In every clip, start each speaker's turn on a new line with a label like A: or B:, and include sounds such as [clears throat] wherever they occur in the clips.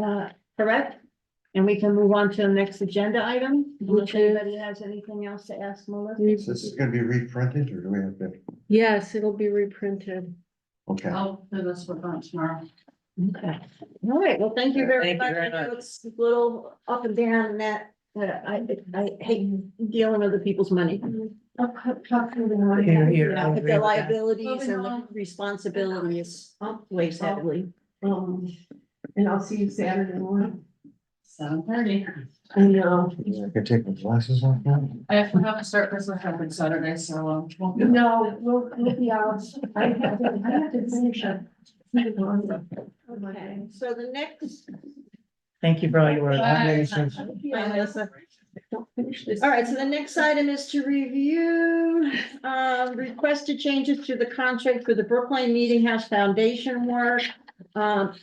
A: uh, correct? And we can move on to the next agenda item, unless
B: Which is-
A: anybody has anything else to ask Melissa.
B: We-
C: Is this gonna be reprinted or do we have to?
B: Yes, it'll be reprinted.
C: Okay,
A: Oh.
D: I'll do this for lunch tomorrow.
A: Okay, all right, well, thank you very
E: Thank you
A: much.
E: very
A: I know
E: much.
A: It's a little up and down and that, that I, I hate dealing with other people's money.
D: I'll cut- cut through the morning.
E: Here, here,
A: Yeah,
E: I'll
A: but
E: agree
A: the
E: with that.
A: liabilities and
D: Moving
A: the
D: on.
A: responsibilities weighs heavily.
B: Um, and I'll see you Saturday morning.
D: Seven thirty.
B: I know.
C: I can take my glasses off now.
D: I have to have a surplus of help on Saturday, so um. won't be-
B: No, we'll, we'll be out. I have to, I have to finish up.
A: Okay, so the next,
E: Thank you for all your work.
D: Bye.
A: I know, so-
B: Don't finish this.
A: all right, so the next item is to review, um, requested changes to the contract for the Brookline Meeting House Foundation work. Um,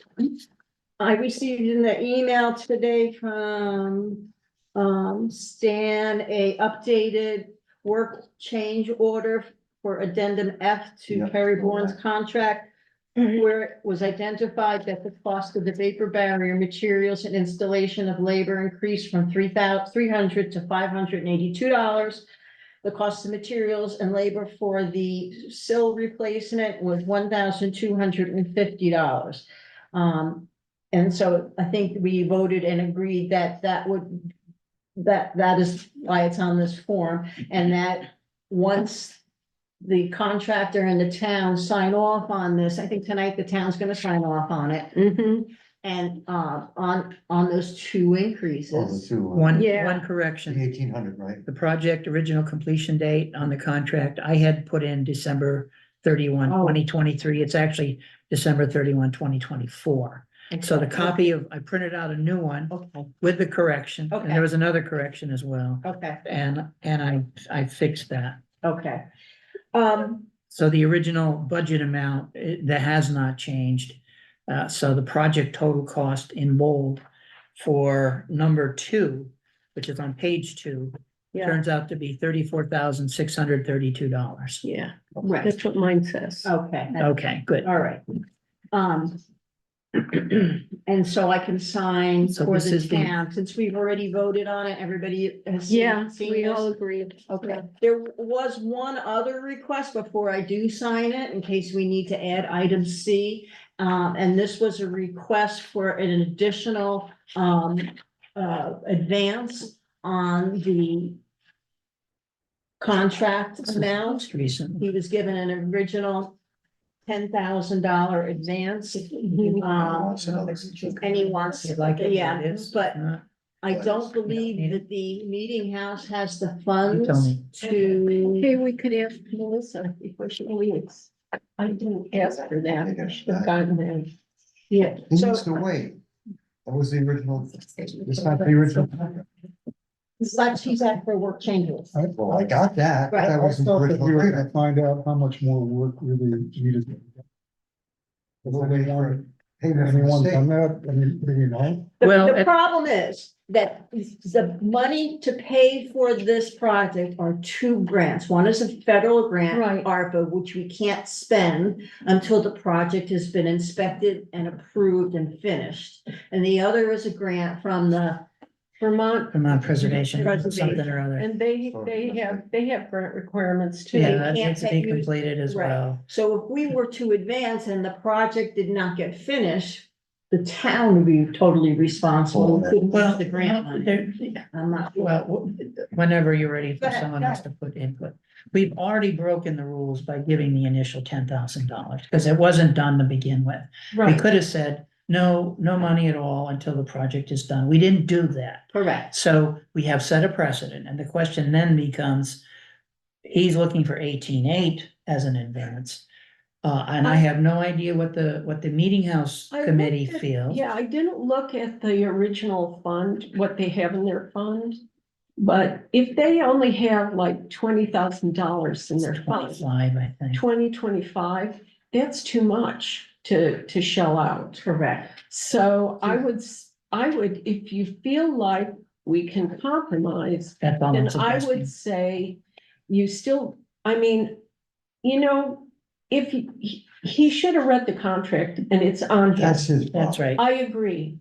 A: I received in the email today from, um, Stan, a updated work change order for addendum F to
C: Yeah.
A: Perry Bourne's contract. where it was identified that the cost of the vapor barrier materials and installation of labor increased from three thousand three hundred to five hundred and eighty-two dollars. The cost of materials and labor for the sill replacement was one thousand two hundred and fifty dollars. Um, and so I think we voted and agreed that that would, that, that is why it's on this form, and that once the contractor and the town sign off on this. I think tonight the town's gonna sign off on it
B: Mhm.
A: and uh on on those two
C: Oh, the
A: increases.
C: two.
E: One,
B: Yeah.
E: one correction,
C: Eighteen hundred, right?
E: the project original completion date on the contract, I had put in December 31, 2023.
B: Oh.
E: It's actually December 31, 2024. So the copy of, I printed out a new one
A: Okay,
E: with the correction, and
A: Okay.
E: there was another correction as well.
A: okay,
E: And, and I, I fixed that.
A: okay. Um,
E: So the original budget amount, eh, that has not changed. Uh, so the project total cost in bold for number two, which is on page two,
B: Yeah,
E: turns out to be thirty-four thousand, six hundred thirty-two dollars.
B: yeah,
A: right,
B: that's what mine says.
A: okay,
E: Okay, good.
A: all right. Um, [clears throat] and so I can sign
E: So
A: for
E: this
A: the
E: is the-
A: town, since we've already voted on it, everybody has seen.
B: Yeah,
A: seen
B: we
A: this?
B: all agreed.
A: Okay, there was one other request before I do sign it, in case we need to add item C. Um, and this was a request for an additional, um, uh, advance on the contract amount.
E: Recently.
A: He was given an original ten thousand dollar advance. Um,
C: Lots of others.
A: and he wants,
E: You like it?
A: yeah,
E: It is,
A: but
E: uh,
A: I don't believe that the meeting house has the funds
E: me.
A: to.
B: Hey, we could ask Melissa before she leaves. I didn't ask for that. I should have gotten that.
A: Yeah,
C: He
A: so
C: uh, needs to wait. That was the original, it's not the original. contract.
A: it's like she's at for work changes.
F: I
C: Well, I got that, but
A: Right.
C: that
F: I
C: wasn't. the
F: thought that we
C: original
F: were gonna
C: agreement.
F: find out how much more work really needed.
C: We're waiting for Payment from
F: Anyone
C: the
F: done
C: state.
F: that? I mean, do you know?
A: The,
E: Well,
A: the
E: it-
A: problem is that the money to pay for this project are two grants. One is a federal grant,
B: Right.
A: ARPA, which we can't spend until the project has been inspected and approved and finished. And the other is a grant from the Vermont,
E: Vermont preservation,
A: Preservation.
E: something or other.
B: And they, they have, they have grant requirements too.
E: Yeah,
A: they
E: that
A: can't
E: needs to be
A: take you-
E: completed as
A: Right.
E: well.
A: so if we were to advance and the project did not get finished, the town would be totally responsible. We couldn't use
E: Well,
A: The grant money.
E: there,
A: I'm not.
E: Well, w- whenever you're ready
A: Go
E: for
A: ahead,
E: someone
A: go
E: else to put input. We've already broken the rules by giving the initial ten thousand dollars, because it wasn't done to begin with. We could have said, no, no money at all until the project is done. We didn't do that.
A: Correct.
E: So we have set a precedent, and the question then becomes, he's looking for eighteen-eight as an advance. Uh, and I have no idea what the, what the meeting house
B: I
E: committee
B: looked at-
E: feels.
B: Yeah, I didn't look at the original fund, what they have in their fund. But if they only have like twenty thousand dollars in
E: It's
B: their fund,
E: Twenty-five, I think.
B: twenty, twenty-five, that's too much to, to shell out.
A: Correct.
B: So I would, s- I would, if you feel like we can compromise,
E: That's all I'm
B: then I
E: suggesting.
B: would say you still, I mean, you know, if he, he- he should have read the contract and it's on him.
C: That's his. problem.
E: That's right.
B: I agree.